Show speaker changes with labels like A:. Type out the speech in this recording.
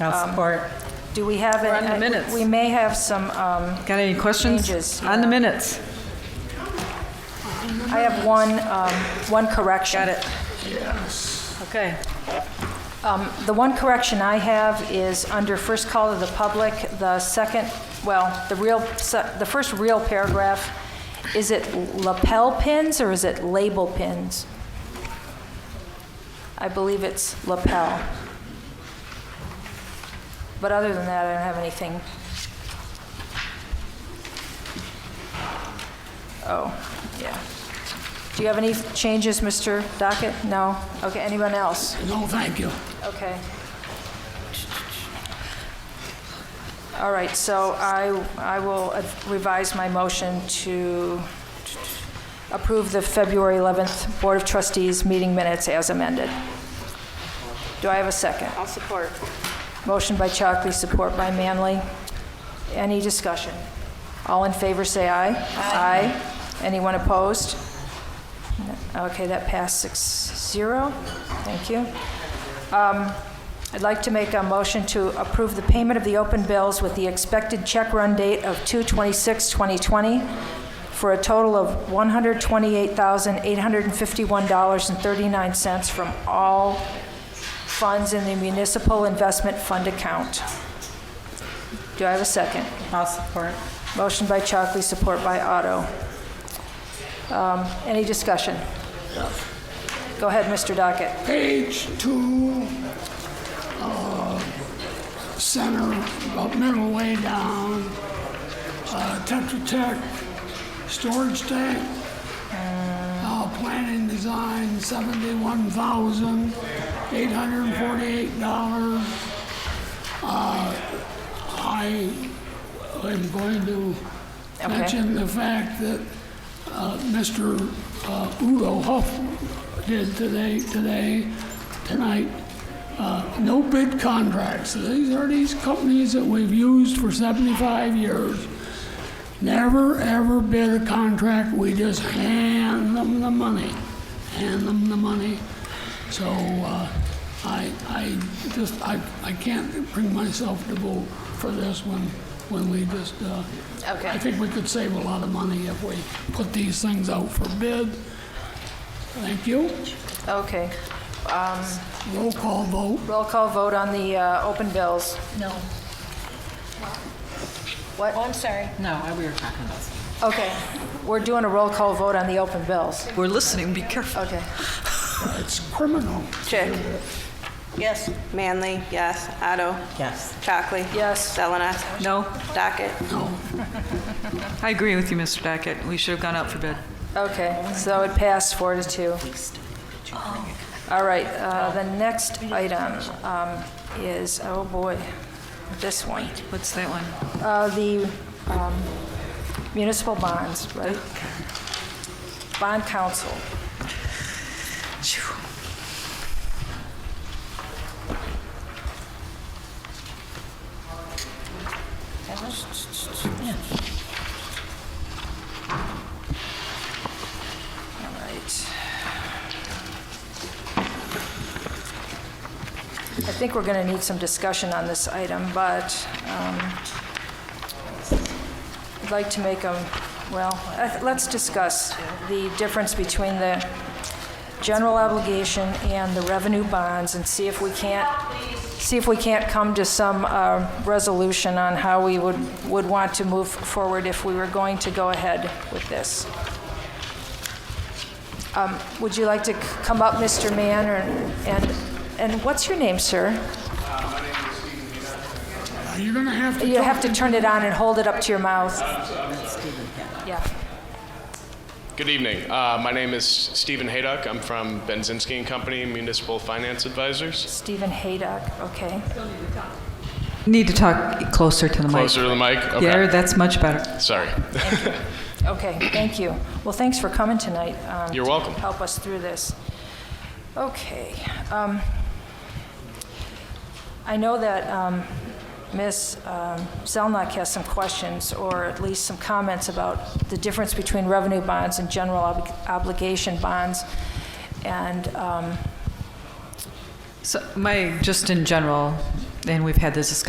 A: I'll
B: Um,
A: support.
C: Do we have?
B: We're on
C: an-
B: the minutes.
C: We may have some, um,
B: Got any questions?
C: Changes,
B: On the
C: yeah.
B: minutes?
C: I have one, um, one correction. Got it.
B: Okay.
C: The one correction I have is under first call to the public, the second, well, the real, se- the first real paragraph, is it lapel pins or is it label pins? I believe it's lapel. But other than that, I don't have anything. Oh, yeah. Do you have any changes, Mr. Dockett? No? Okay, anyone else?
D: No, thank you.
C: Okay. All right, so I, I will revise my motion to approve the February 11th Board of Trustees meeting minutes as amended. Do I have a second?
E: I'll support.
C: Motion by Chockley, support by Manley. Any discussion? All in favor, say aye. Aye. Anyone opposed? Okay, that passed six zero. Thank you. Um, I'd like to make a motion to approve the payment of the open bills with the expected check run date of 2/26/2020 for a total of $128,851.39 from all funds in the municipal investment fund account. Do I have a second?
A: I'll support.
C: Motion by Chockley, support by Otto. Um, Any discussion? Go ahead, Mr. Dockett.
D: Page two, uh, center, about middle way down, uh, Tetra Tech, storage tank, uh, planning design, seventy-one thousand, eight hundred and forty-eight dollars. Uh, I am going to
C: Okay.
D: mention the fact that uh, Mr. uh, Udo Huff did today, today, tonight, uh, no bid contracts. These are these companies that we've used for 75 years. Never, ever bid a contract, we just hand them the money, hand them the money. So, uh, I, I just, I, I can't bring myself to vote for this one, when we just, uh, I think we could save a lot of money if we put these things out for bid. Thank you.
C: Okay.
D: Roll call vote.
C: Roll call vote on the uh, open bills.
A: No.
C: What?
A: I'm sorry. No, we were talking about.
C: Okay. We're doing a roll call vote on the open bills.
B: We're listening, be careful.
C: Okay.
D: It's criminal.
E: Chick? Yes. Manley, yes. Otto?
A: Yes.
E: Chockley?
C: Yes.
E: Zelenak?
B: No,
E: Docket?
B: I agree with you, Mr. Dockett. We should have gone out for bid.
C: Okay, so it passed four to two. All right, uh, the next item um, is, oh boy, this one.
B: What's that one?
C: Uh, The um, municipal bonds, right? Bond council. All right. I think we're going to need some discussion on this item, but um, I'd like to make a, well, uh, let's discuss the difference between the general obligation and the revenue bonds and see if we can't, see if we can't come to some uh, resolution on how we would, would want to move forward if we were going to go ahead with this. Um, Would you like to c- come up, Mr. Mann, or- and, and what's your name, sir?
D: Now, You're gonna have to.
C: You have to turn it on and hold it up to your mouth. Yeah.
F: Good evening. Uh, my name is Stephen Haydock. I'm from Benzinski and Company Municipal Finance Advisors.
C: Stephen Haydock, okay.
B: Need to talk closer to the mic.
F: Closer to the mic. Okay.
B: There, that's much better.
F: Sorry.
C: Okay, thank you. Well, thanks for coming tonight. um,
F: You're welcome.
C: To help us through this. Okay. um, I know that um, Ms. um, Zelnok has some questions, or at least some comments about the difference between revenue bonds and general obli- obligation bonds. And um,
B: So my, just in general, and we've had this discussion